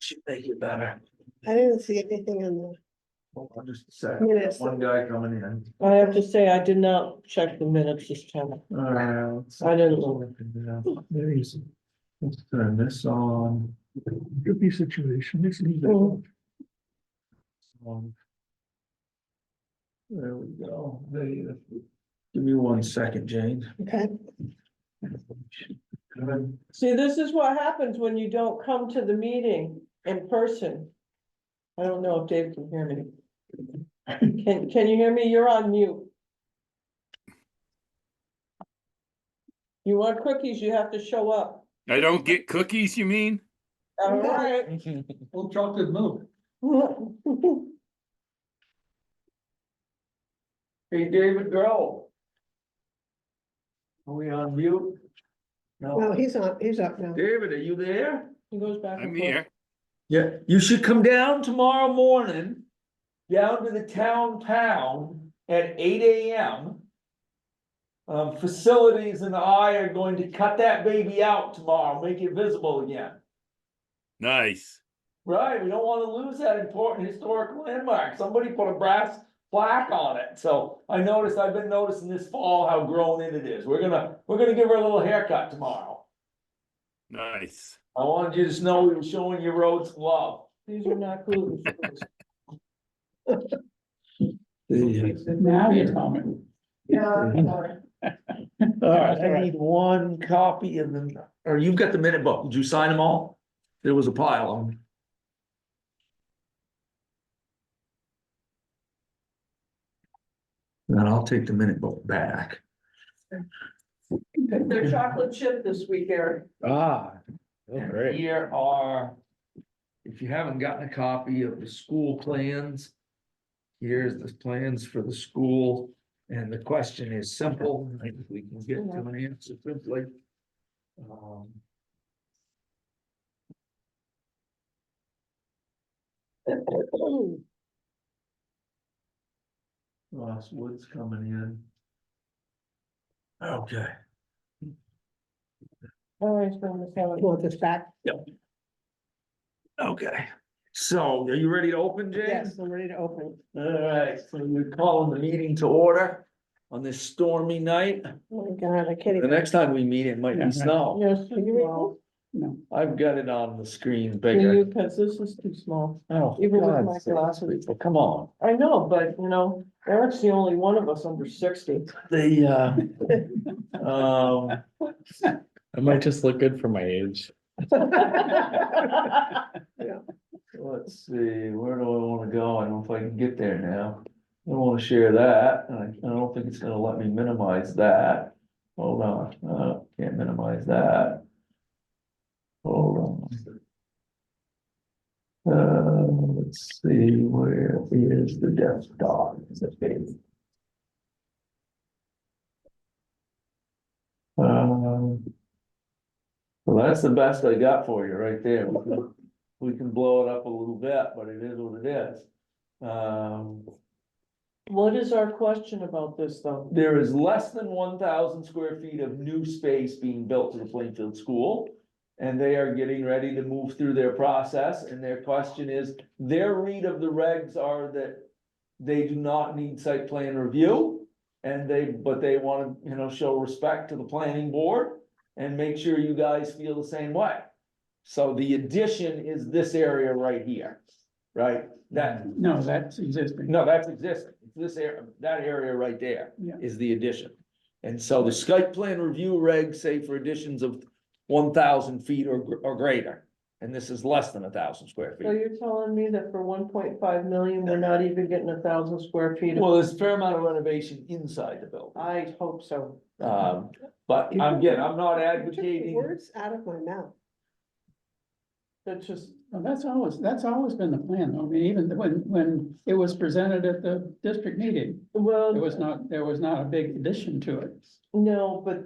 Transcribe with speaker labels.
Speaker 1: should make it better.
Speaker 2: I didn't see anything on the
Speaker 1: Hold on just a second.
Speaker 2: minutes.
Speaker 1: One guy coming in.
Speaker 3: I have to say, I did not check the minutes this time.
Speaker 1: Uh, let's-
Speaker 3: I didn't look.
Speaker 1: There he is. Let's turn this on. Oh. Could be situation, isn't
Speaker 3: Mhm.
Speaker 1: Um, There we go. There you- Give me one second, Jane.
Speaker 2: Okay,
Speaker 3: See, this is what happens when you don't come to the meeting in person. I don't know if Dave can hear me. Can, can you hear me? You're on mute. You want cookies, you have to show up.
Speaker 4: I don't get cookies, you mean?
Speaker 3: All right.
Speaker 1: Well, chocolate milk.
Speaker 3: Hey, David Grohl.
Speaker 1: Are we on mute?
Speaker 2: no, he's on, he's up now.
Speaker 1: David, are you there?
Speaker 3: He goes back
Speaker 4: I'm
Speaker 3: and forth.
Speaker 4: here.
Speaker 1: Yeah, you should come down tomorrow morning, down to the town pound at eight AM. Um, facilities and I are going to cut that baby out tomorrow, make it visible again.
Speaker 4: Nice.
Speaker 1: Right, we don't wanna lose that important historic landmark, somebody put a brass plaque on it, so I noticed, I've been noticing this fall how grown in it is, we're gonna, we're gonna give her a little haircut tomorrow.
Speaker 4: Nice.
Speaker 1: I wanted you to know we were showing your roads love.
Speaker 3: These are not gluten. free.
Speaker 1: Now you're coming.
Speaker 2: Yeah,
Speaker 1: All right, I need one copy of the, or you've got the minute book. Did you sign them all? There was a pile of them. Then I'll take the minute book back.
Speaker 3: They're chocolate chip this week, Eric.
Speaker 1: Ah.
Speaker 5: Oh,
Speaker 1: And
Speaker 5: great.
Speaker 1: Here are, if you haven't gotten a copy of the school plans. Here's the plans for the school, and the question is simple, I think we can get to an answer simply. Um, Ross Wood's coming in. Okay.
Speaker 3: Always going to have it.
Speaker 2: want this back?
Speaker 1: Okay, so are you ready to open, James?
Speaker 2: Yes, I'm ready to open.
Speaker 1: All right, so we're calling the meeting to order on this stormy night.
Speaker 2: Oh my God, I can't
Speaker 1: The
Speaker 2: even.
Speaker 1: next time we meet, it might be snow.
Speaker 3: Yes,
Speaker 2: Can you read this?
Speaker 3: well,
Speaker 1: I've got it on the screen
Speaker 3: you,
Speaker 1: bigger.
Speaker 3: because this is too small.
Speaker 1: Oh,
Speaker 3: even with
Speaker 1: God's
Speaker 3: my
Speaker 1: sakes,
Speaker 3: glasses.
Speaker 1: people, Come on,
Speaker 3: I know, but you know, Eric's the only one of us under sixty.
Speaker 1: the, uh, um,
Speaker 5: I might just look good for my age.
Speaker 1: let's see, where do I wanna go? I don't know if I can get there now. I don't wanna share that, and I, I don't think it's gonna let me minimize that. Hold on, uh, can't minimize that. Hold on. Uh, let's see, where is the desktop? Is it big? Um. Well, that's the best I got for you right there. We can- We can blow it up a little bit, but it is what it is. Um.
Speaker 3: What is our question about this, though?
Speaker 1: There is less than one thousand square feet of new space being built to the Plainfield School. And they are getting ready to move through their process, and their question is, their read of the regs are that. They do not need site plan review, and they, but they wanna, you know, show respect to the planning board. And make sure you guys feel the same way. So the addition is this area right here, right? That,
Speaker 6: No, that's existing.
Speaker 1: no, that's existing, It's this area, that area right there
Speaker 6: Yeah.
Speaker 1: is the addition. And so the Skype plan review regs say for additions of one thousand feet or, gr- or greater. And this is less than a thousand square
Speaker 3: So
Speaker 1: feet.
Speaker 3: you're telling me that for one point five million, we're not even getting a thousand square feet? of-
Speaker 1: Well, there's a fair amount of renovation inside the building,
Speaker 3: I hope so.
Speaker 1: um, but I'm, again, I'm not
Speaker 2: You took the
Speaker 1: advocating.
Speaker 2: Words out of my mouth.
Speaker 3: That's just,
Speaker 6: Well, That's always, that's always been the plan, though. I mean, even when, when it was presented at the district meeting,
Speaker 3: well,
Speaker 6: there was not, there was not a big addition to it.
Speaker 3: no, but